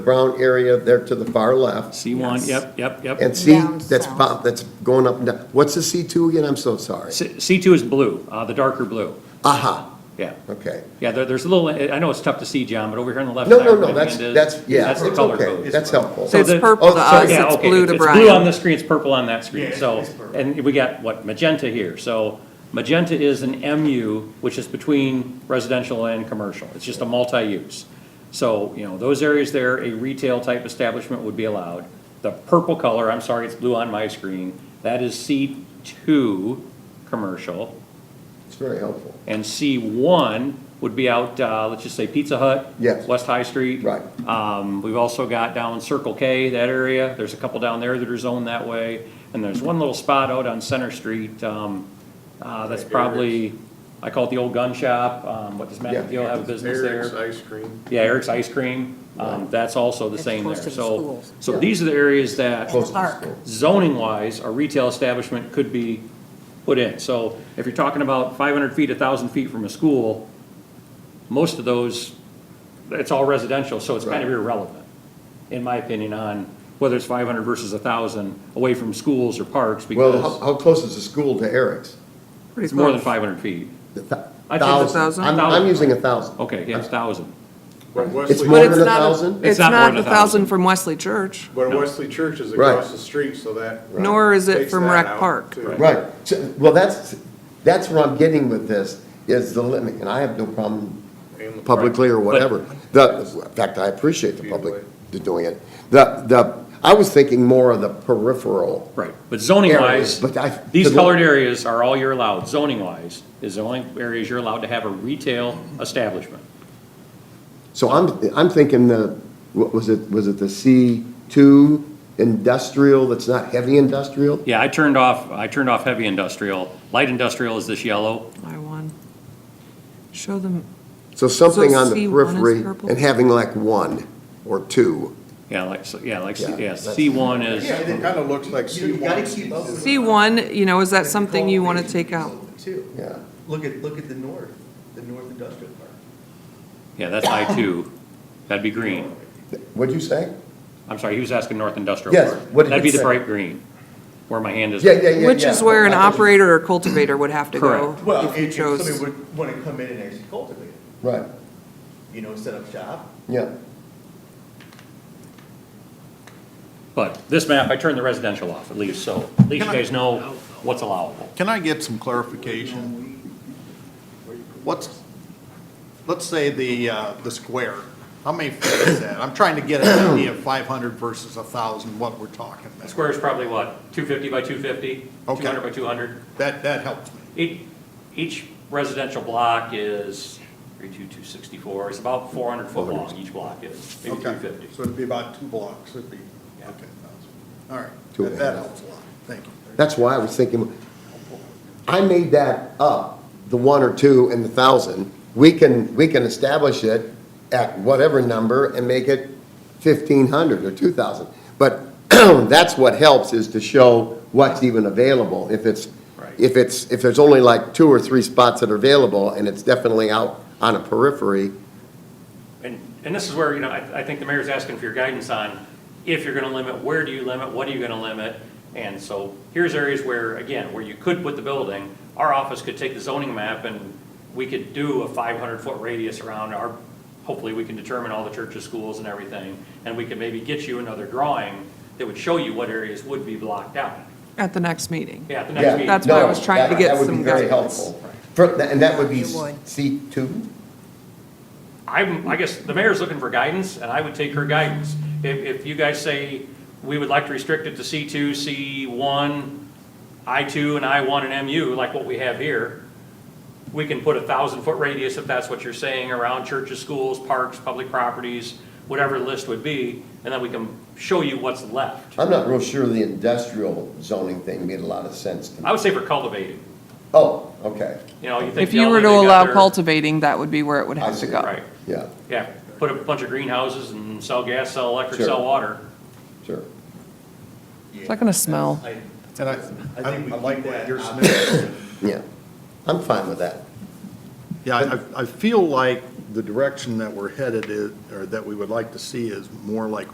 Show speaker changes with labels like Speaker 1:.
Speaker 1: brown area there to the far left,
Speaker 2: C1,
Speaker 3: Yes.
Speaker 2: yep, yep, yep.
Speaker 1: and C,
Speaker 3: Down
Speaker 1: that's,
Speaker 3: south.
Speaker 1: pop- that's going up, and down. what's the C2 again? I'm so sorry.
Speaker 2: C- C2 is blue, uh, the darker blue.
Speaker 1: Aha,
Speaker 2: Yeah.
Speaker 1: okay.
Speaker 2: Yeah, there, there's a little, I know it's tough to see, John, but over here on the left.
Speaker 1: No,
Speaker 2: side
Speaker 1: no,
Speaker 2: where
Speaker 1: no,
Speaker 2: the
Speaker 1: that's,
Speaker 2: hand is,
Speaker 1: that's, yeah,
Speaker 2: That's the
Speaker 1: it's
Speaker 2: color
Speaker 1: okay,
Speaker 2: code.
Speaker 1: that's helpful.
Speaker 2: So
Speaker 4: it's
Speaker 2: the-
Speaker 4: purple to
Speaker 1: oh,
Speaker 4: us,
Speaker 1: sorry.
Speaker 2: Yeah,
Speaker 4: it's
Speaker 2: okay,
Speaker 4: blue to
Speaker 2: It's blue on
Speaker 4: Brian.
Speaker 2: this screen, it's purple on that screen,
Speaker 5: Yeah,
Speaker 2: so,
Speaker 5: it's purple.
Speaker 2: and we got, what, magenta here, so magenta is an MU, which is between residential and commercial, it's just a multi-use. So, you know, those areas there, a retail-type establishment would be allowed. The purple color, I'm sorry, it's blue on my screen, that is C two, commercial.
Speaker 1: It's very helpful.
Speaker 2: And C1 would be out, uh, let's just say Pizza Hut.
Speaker 1: Yes.
Speaker 2: West High Street.
Speaker 1: Right.
Speaker 2: Um, We've also got down Circle K, that area. There's a couple down there that are zoned that way. And there's one little spot out on Center Street. um, uh, That's probably, I call it the old gun shop. Um, What does Matt
Speaker 1: Yeah.
Speaker 2: McGill have a business
Speaker 5: Eric's uh,
Speaker 2: there?
Speaker 5: ice cream.
Speaker 2: Yeah, Eric's Ice Cream. Um, That's also the
Speaker 3: That's
Speaker 2: same there.
Speaker 3: close to the
Speaker 2: So,
Speaker 3: schools.
Speaker 2: so
Speaker 1: Yeah.
Speaker 2: these are the areas that
Speaker 1: Close to the
Speaker 3: Park.
Speaker 1: school.
Speaker 2: zoning wise, a retail establishment could be put in. So if you're talking about five hundred feet, thousand feet from a school, most of those, it's all residential, so it's kind of
Speaker 1: Right.
Speaker 2: irrelevant, in my opinion, on whether it's five hundred versus thousand, away from schools or parks,
Speaker 1: Well, how,
Speaker 2: because
Speaker 1: how close is the school to Eric's?
Speaker 4: Pretty
Speaker 2: it's more than
Speaker 4: close.
Speaker 2: five hundred feet.
Speaker 1: The thou-
Speaker 2: I think it's a
Speaker 1: Thousand,
Speaker 4: thousand.
Speaker 1: I'm, I'm using a thousand.
Speaker 2: Okay, yeah, it's thousand.
Speaker 5: But
Speaker 1: It's
Speaker 5: Wesley,
Speaker 1: more
Speaker 4: But
Speaker 1: than
Speaker 4: it's
Speaker 1: a
Speaker 4: not a-
Speaker 1: thousand?
Speaker 4: It's
Speaker 2: not more
Speaker 4: not
Speaker 2: than
Speaker 4: a
Speaker 2: a thousand.
Speaker 4: thousand from Wesley Church,
Speaker 5: but Wesley Church is
Speaker 1: Right.
Speaker 5: across the street, so that.
Speaker 4: nor is it
Speaker 5: takes
Speaker 4: from
Speaker 5: that
Speaker 4: Rec
Speaker 5: out,
Speaker 4: Park.
Speaker 5: too.
Speaker 1: Right, So- well, that's, that's where I'm getting with this, is the limit, and I have no problem
Speaker 5: And the-
Speaker 1: publicly or whatever. The, in fact, I appreciate the public doing it. The, the, I was thinking more of the peripheral.
Speaker 2: Right, but zoning
Speaker 1: Areas,
Speaker 2: wise,
Speaker 1: but I-
Speaker 2: these
Speaker 1: the-
Speaker 2: colored areas are all you're allowed, zoning wise, is the only areas you're allowed to have a retail establishment.
Speaker 1: So I'm, I'm thinking the, what was it, was it the C two industrial that's not heavy industrial?
Speaker 2: Yeah, I turned off, I turned off heavy industrial. Light industrial is this yellow.
Speaker 4: I one. Show them,
Speaker 1: So something on the
Speaker 4: C1 is
Speaker 1: periphery
Speaker 4: purple?
Speaker 1: and having like one or two.
Speaker 2: Yeah, like, so- yeah, like,
Speaker 1: Yeah,
Speaker 2: yeah,
Speaker 1: that's-
Speaker 2: C one is,
Speaker 5: Yeah, it kind of looks like
Speaker 6: You
Speaker 5: C
Speaker 6: know, you gotta
Speaker 5: one.
Speaker 6: keep up with.
Speaker 4: C one, you know, is that
Speaker 6: the
Speaker 4: something you want to
Speaker 6: cultivation
Speaker 4: take out?
Speaker 6: Too.
Speaker 1: Yeah.
Speaker 6: Look at, look at the north, the north industrial park.
Speaker 2: yeah, that's I two. That'd be green.
Speaker 1: What'd you say?
Speaker 2: I'm sorry, he was asking North Industrial
Speaker 1: Yes,
Speaker 2: Park.
Speaker 1: what did
Speaker 2: That'd
Speaker 1: you
Speaker 2: be the
Speaker 1: say?
Speaker 2: bright green, where my hand is.
Speaker 1: Yeah, yeah, yeah.
Speaker 4: Which is
Speaker 1: yeah.
Speaker 4: where an operator or cultivator would have to go
Speaker 2: Correct.
Speaker 6: Well,
Speaker 4: if you
Speaker 6: if if somebody
Speaker 4: chose.
Speaker 6: would wanna come in and actually cultivate it,
Speaker 1: Right,
Speaker 6: you know, set up shop.
Speaker 1: yeah.
Speaker 2: But this map, I turned the residential off at least, so at least you
Speaker 5: Can I-
Speaker 2: guys know what's allowable.
Speaker 5: Can I get some clarification? What's, let's say the, uh, the square, how many feet is that? I'm trying to get an idea of five hundred versus a thousand, what we're talking about.
Speaker 2: Square is probably what, two fifty by two fifty?
Speaker 5: Okay.
Speaker 2: Two hundred by two hundred?
Speaker 5: That, that helps me.
Speaker 2: Each, each residential block is thirty-two, two sixty-four. It's about four hundred foot long, each block is, maybe
Speaker 5: Okay.
Speaker 2: two fifty.
Speaker 5: So it'd be about two blocks, it'd be, okay,
Speaker 2: Yeah.
Speaker 5: thousand. All right,
Speaker 1: Two and
Speaker 5: that
Speaker 1: a
Speaker 5: that
Speaker 1: half.
Speaker 5: helps a lot, thank you.
Speaker 1: That's why I was thinking, I made that up, the one or two and the thousand. We can, we can establish it at whatever number and make it fifteen hundred or two thousand. But that's what helps is to show what's even available. If it's,
Speaker 2: Right.
Speaker 1: if it's, if there's only like two or three spots that are available and it's definitely out on a periphery,
Speaker 2: And, and this is where, you know, I, I think the mayor's asking for your guidance on if you're gonna limit, where do you limit, what are you gonna limit? And so here's areas where, again, where you could put the building, our office could take the zoning map and we could do a five hundred foot radius around our, hopefully we can determine all the churches, schools and everything. And we could maybe get you another drawing that would show you what areas would be blocked out.
Speaker 4: At the next meeting.
Speaker 2: Yeah, at the
Speaker 1: Yeah,
Speaker 2: next meeting.
Speaker 4: That's why I
Speaker 1: no,
Speaker 4: was trying to
Speaker 1: that-
Speaker 4: get
Speaker 1: That would be
Speaker 4: some
Speaker 1: very
Speaker 4: guidance.
Speaker 1: helpful. For- And that would be
Speaker 3: You would.
Speaker 1: C two?
Speaker 2: I'm, I guess the mayor's looking for guidance, and I would take her guidance. If, if you guys say, we would like to restrict it to C two, C one, I two, and I one and MU, like what we have here, we can put a thousand foot radius, if that's what you're saying, around churches, schools, parks, public properties, whatever the list would be, and then we can show you what's left.
Speaker 1: I'm not real sure the industrial zoning thing made a lot of sense to me.
Speaker 2: I would say for cultivating,
Speaker 1: Oh, okay,
Speaker 2: you know, you think.
Speaker 4: If you
Speaker 2: Delta,
Speaker 4: were to
Speaker 2: they got
Speaker 4: allow
Speaker 2: their-
Speaker 4: cultivating, that would be where it would
Speaker 1: I
Speaker 4: have to
Speaker 1: see.
Speaker 4: go.
Speaker 2: Right,
Speaker 1: yeah,
Speaker 2: yeah, put a bunch of greenhouses and sell gas, sell electric,
Speaker 1: Sure.
Speaker 2: sell water.
Speaker 1: sure.
Speaker 4: It's not gonna smell.
Speaker 6: I,
Speaker 5: And I,
Speaker 6: I
Speaker 5: I
Speaker 6: think we
Speaker 5: I like
Speaker 6: keep
Speaker 5: what
Speaker 6: that
Speaker 5: you're
Speaker 6: option.
Speaker 5: saying.
Speaker 1: Yeah, I'm fine with that.
Speaker 5: Yeah, I, I feel like the direction that we're headed is, or that we would like to see is more like